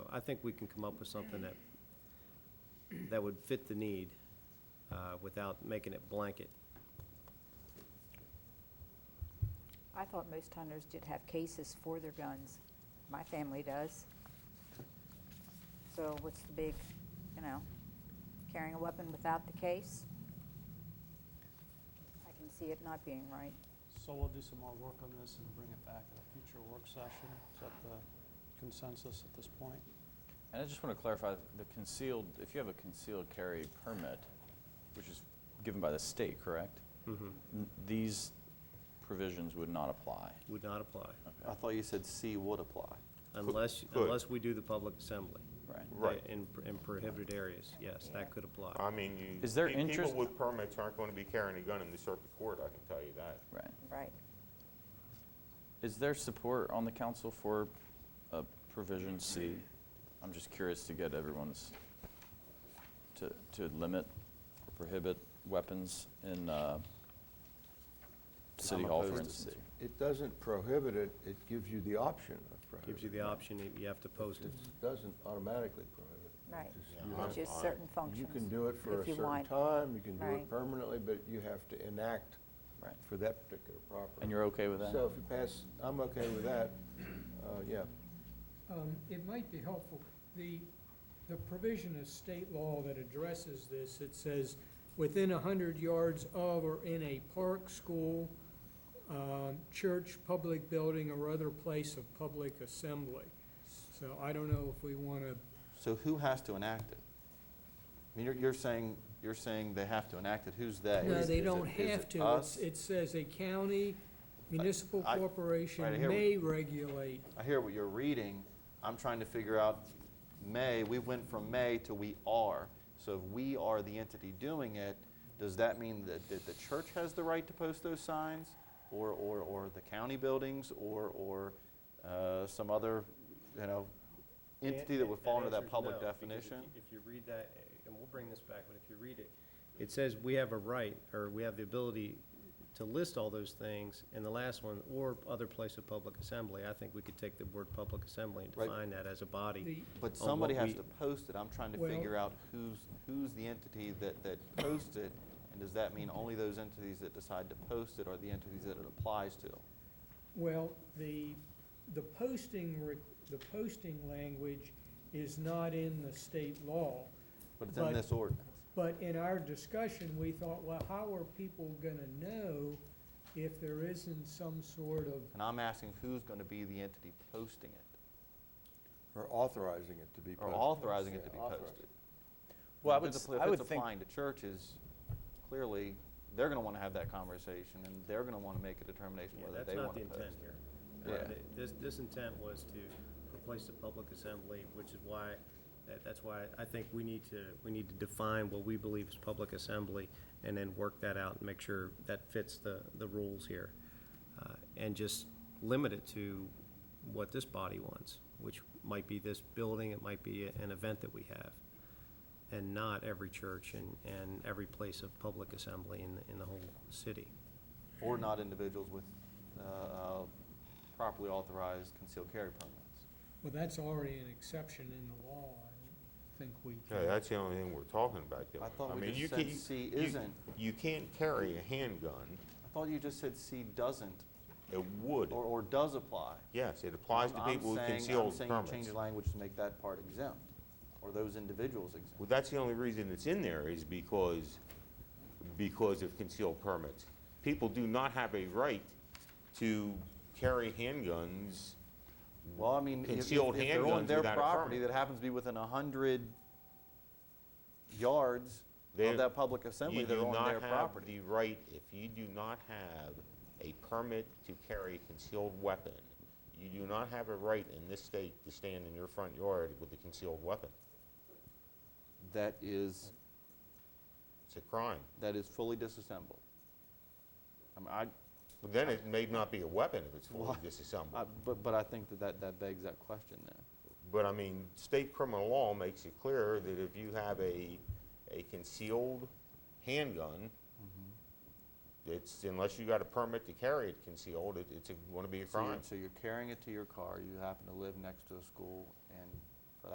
I think we can come up with something that, that would fit the need, uh, without making it blanket. I thought most hunters did have cases for their guns. My family does. So what's the big, you know, carrying a weapon without the case? I can see it not being right. So we'll do some more work on this and bring it back at a future work session. Is that the consensus at this point? And I just want to clarify, the concealed, if you have a concealed carry permit, which is given by the state, correct? Mm-hmm. Mhm. N- These provisions would not apply. Would not apply, I thought you said C would apply. unless, Could. unless we do the public assembly. Right. Right. In, in prohibited areas, yes, that could apply. I mean, you. uh, Is there pe- interest- People with permits aren't going to be carrying a gun in the circuit court, I can tell you that. Right. Right. Is there support on the council for uh, provision C? I'm just curious to get everyone's, to, to limit or prohibit weapons in uh, City Hall, for opposed to instance. It doesn't prohibit it, it gives you the option of prohibiting. Gives you the option, you- you have to post it. It doesn't automatically prohibit it. Right. It's just you It's have- just certain functions. You can do it for if a you certain want. time, you can do Right. it permanently, but you have to enact Right. for that particular property. And you're okay with that? So if you pass, I'm okay with that, uh, yeah. Um, It might be helpful, the, the provision of state law that addresses this, it says, within a hundred yards of or in a park, school, um, church, public building, or other place of public assembly. So I don't know if we want to, So who has to enact it? I mean, you're, you're saying, you're saying they have to enact it. Who's they? no, Is- they is it- don't is have it to. It's- us? It says a county municipal I- right, I corporation hear what- may regulate. I hear what you're reading. I'm trying to figure out may, we went from may to we are. So if we are the entity doing it, does that mean that, that the church has the right to post those signs? Or, or, or the county buildings or, or uh, some other, you know, entity that would fall under answer that is public no, because if you- definition? If you read that, eh, and we'll bring this back, but if you read it, it says we have a right, or we have the ability to list all those things in the last one, or other place of public assembly. I think we could take the word public assembly and Right. define that as a body. The- But on somebody what has we- to post it. I'm trying to Well- figure out who's, who's the entity that, that posts it. And does that mean only those entities that decide to post it are the entities that it applies to? Well, the, the posting, re- the posting language is not in the state law. But it's in But- this ordinance. But in our discussion, we thought, well, how are people gonna know if there isn't some sort of, And I'm asking who's going to be the entity posting it Or authorizing it to be or posted. authorizing it to Yeah, be authorized. posted. Well, I If would it's s- appli- I would If it's think- applying to churches, clearly, they're going to want to have that conversation and they're going to want to make a determination Yeah, whether that's they not want the to post intent it. here. Yeah. Uh, th- This, this intent was to replace the public assembly, which is why, that, that's why I think we need to, we need to define what we believe is public assembly, and then work that out and make sure that fits the, the rules here. uh, and just limit it to what this body wants, which might be this building, it might be an event that we have, and not every church and, and every place of public assembly in, the- in the whole city. Or not individuals with uh, uh, properly authorized concealed carry permits. well, that's already an exception in the law, I think we Yeah, can. that's the only thing we're talking about doing. I thought we mean, just you said can't- C you- isn't. You can't carry a handgun. I thought you just said C doesn't, It would. or, or does apply. Yes, it applies to I'm- I'm people with saying- concealed I'm saying you change permits. the language to make that part exempt, or those individuals exempt. Well, that's the only reason it's in there is because, because of concealed permits. People do not have a right to carry handguns. Well, I mean, if- if Concealed if they're on handguns their without a property permit. that happens to be within 100 yards They- of that public assembly, You they're do on their not have property. the right, if you do not have a permit to carry a concealed weapon, you do not have a right in this state to stand in your front yard with a concealed weapon. That is, It's a crime. that is fully disassembled. I mean, I, Well, Then it may not be a weapon if it's fully Well, I- disassembled. but, but I think that that that begs that question there. But I mean, state criminal law makes it clear that if you have a, a concealed handgun, Mm-hmm. it's, unless you got a permit to carry it concealed, it, it's going to be a So you're- crime. So you're carrying it to your car, you happen to live next to a school, and